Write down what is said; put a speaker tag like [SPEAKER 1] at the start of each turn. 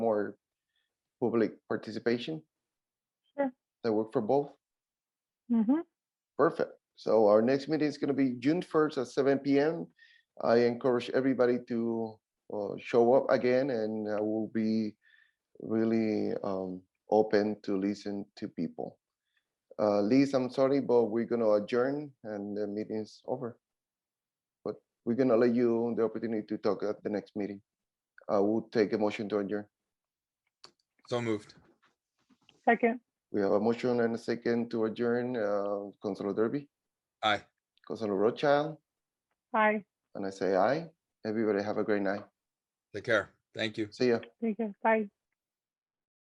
[SPEAKER 1] more public participation.
[SPEAKER 2] Sure.
[SPEAKER 1] That work for both?
[SPEAKER 2] Mm-hmm.
[SPEAKER 1] Perfect. So our next meeting is gonna be June first at seven PM. I encourage everybody to uh, show up again and I will be really um, open to listen to people. Uh, Liz, I'm sorry, but we're gonna adjourn and the meeting's over. But we're gonna let you the opportunity to talk at the next meeting. I will take a motion to adjourn.
[SPEAKER 3] So moved.
[SPEAKER 2] Second.
[SPEAKER 1] We have a motion and a second to adjourn. Uh, Consuelo Derby,
[SPEAKER 3] Aye.
[SPEAKER 1] Consuelo Rothschild.
[SPEAKER 2] Hi.
[SPEAKER 1] And I say aye. Everybody have a great night.
[SPEAKER 3] Take care. Thank you.
[SPEAKER 1] See ya.
[SPEAKER 2] Thank you. Bye.